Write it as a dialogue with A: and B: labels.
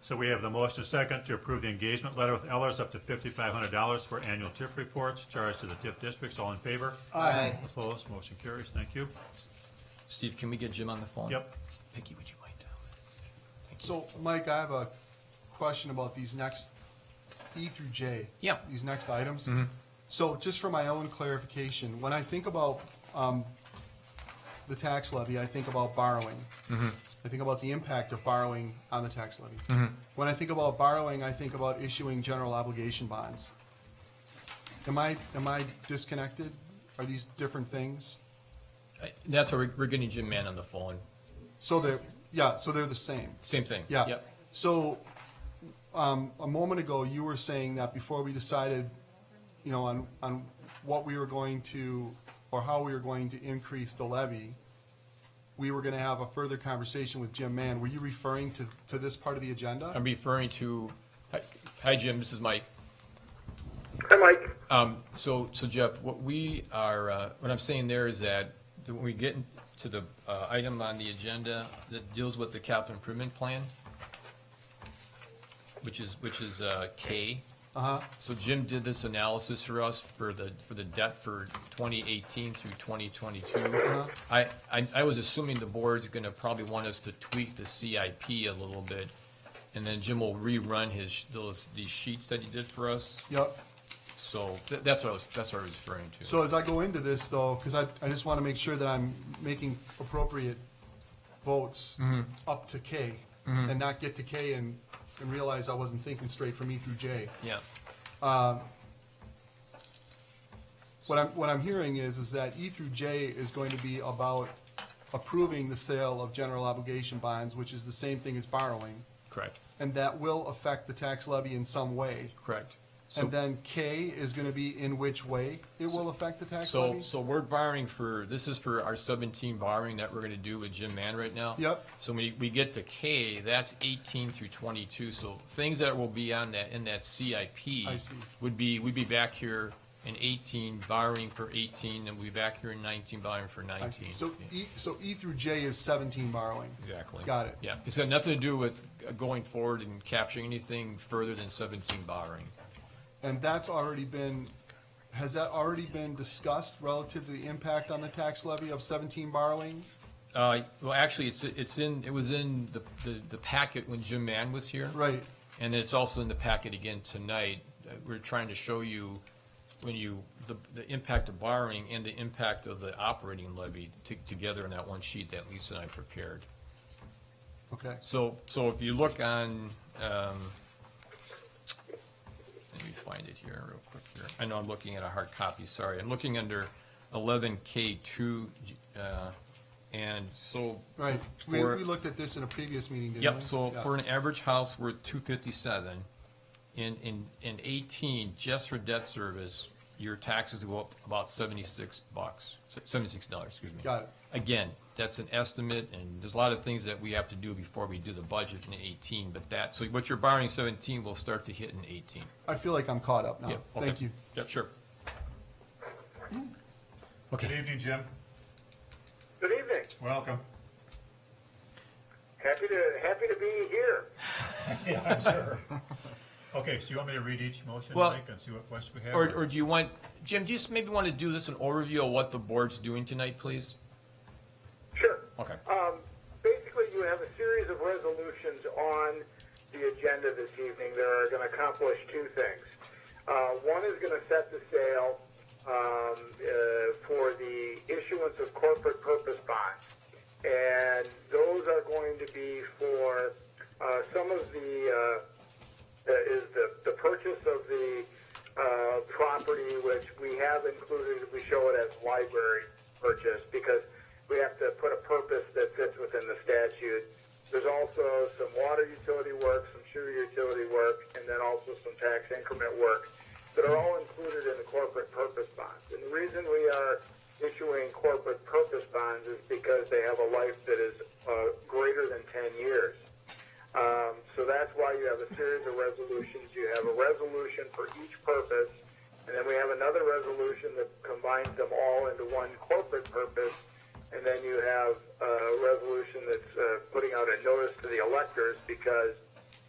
A: So we have the motion and second to approve the engagement letter with Ellers up to fifty-five hundred dollars for annual TIF reports charged to the TIF districts. All in favor?
B: Aye.
A: Opposed? Motion carries. Thank you.
C: Steve, can we get Jim on the phone?
A: Yep.
C: Picky, would you mind? Thank you.
B: So, Mike, I have a question about these next E through J.
C: Yeah.
B: These next items. So, just for my own clarification, when I think about um, the tax levy, I think about borrowing. I think about the impact of borrowing on the tax levy. When I think about borrowing, I think about issuing general obligation bonds. Am I am I disconnected? Are these different things?
C: I- That's why we're, we're getting Jim Mann on the phone.
B: So they're yeah. So they're the same.
C: Same thing.
B: Yeah.
C: Yep.
B: So, um, a moment ago, you were saying that before we decided, you know, on, on what we were going to, or how we were going to increase the levy, we were gonna have a further conversation with Jim Mann. Were you referring to, to this part of the agenda?
C: I'm referring to, hi- hi, Jim, this is Mike.
D: Hi, Mike.
C: Um, so, so Jeff, what we are, uh, what I'm saying there is that when we get to the, uh, item on the agenda that deals with the capital improvement plan, which is, which is, uh, K.
B: Uh-huh,
C: So Jim did this analysis for us for the, for the debt for twenty eighteen through twenty twenty-two.
B: Uh-huh.
C: I, I, I was assuming the board's gonna probably want us to tweak the CIP a little bit. And then Jim will rerun his, those, these sheets that he did for us.
B: yep.
C: So th- that's what I was, that's what I was referring to.
B: So as I go into this though, because I, I just wanna make sure that I'm making appropriate votes
C: Mm-hmm.
B: up to K, and not get to K and, and realize I wasn't thinking straight from E through J.
C: Yeah,
B: What I'm, what I'm hearing is, is that E through J is going to be about approving the sale of general obligation bonds, which is the same thing as borrowing,
C: correct,
B: and that will affect the tax levy in some way.
C: correct. So,
B: And then K is gonna be in which way it will affect the tax
C: so,
B: levy?
C: so we're borrowing for, this is for our seventeen borrowing that we're gonna do with Jim Mann right now.
B: Yep.
C: So when we get to K, that's eighteen through twenty-two, so things that will be on that, in that CIP.
B: I see.
C: Would be, we'd be back here in eighteen borrowing for eighteen, and we'll be back here in nineteen borrowing for
B: I
C: nineteen.
B: see. So E, so E through J is seventeen borrowing.
C: Exactly.
B: Got it.
C: Yeah, it's got nothing to do with uh, going forward and capturing anything further than seventeen borrowing.
B: And that's already been, has that already been discussed relative to the impact on the tax levy of seventeen borrowing?
C: Uh, well, actually, it's, it's in, it was in the, the, the packet when Jim Mann was here.
B: Right,
C: And it's also in the packet again tonight. Uh, We're trying to show you when you, the, the impact of borrowing and the impact of the operating levy to, together in that one sheet that Lisa and I prepared.
B: okay.
C: So, so if you look on, um, let me find it here real quick here. I know I'm looking at a hard copy, sorry. I'm looking under eleven K two, uh, and so
B: Right, we,
C: For-
B: we looked at this in a previous meeting, didn't we?
C: Yep, so
B: Yeah.
C: for an average house, we're two fifty-seven. In, in, in eighteen, just for debt service, your taxes go up about seventy-six bucks, se- seventy-six dollars, excuse me.
B: Got it.
C: Again, that's an estimate, and there's a lot of things that we have to do before we do the budget in eighteen, but that, so what you're borrowing in seventeen will start to hit in eighteen.
B: I feel like I'm caught up
C: Yeah,
B: now.
C: okay.
B: Oh, Thank you.
C: Yeah, sure.
A: Good
C: Okay,
A: evening, Jim.
D: Good evening.
A: Welcome.
D: Happy to happy to be here.
A: Yeah, I'm sure. Okay, so you want me to read each motion,
C: Well-
A: Mike, and see what questions we have?
C: or, or do you want, Jim, do you just maybe want to do this an overview of what the board's doing tonight, please?
D: Sure.
C: Okay.
D: Um, basically, you have a series of resolutions on the agenda this evening that are going to accomplish two things. Uh, one is going to set the sale um, uh, for the issuance of corporate purpose bonds, and those are going to be for uh, some of the. Uh, uh, is the, the purchase of the uh, property, which we have included, we show it as library purchase because we have to put a purpose that fits within the statute. There's also some water utility work, some sewer utility work, and then also some tax increment work that are all included in the corporate purpose bonds. And the reason we are issuing corporate purpose bonds is because they have a life that is uh, greater than 10 years. Um, so that's why you have a series of resolutions. You have a resolution for each purpose, and then we have another resolution that combines them all into one corporate purpose, and then you have a resolution that's uh, putting out a notice to the electors because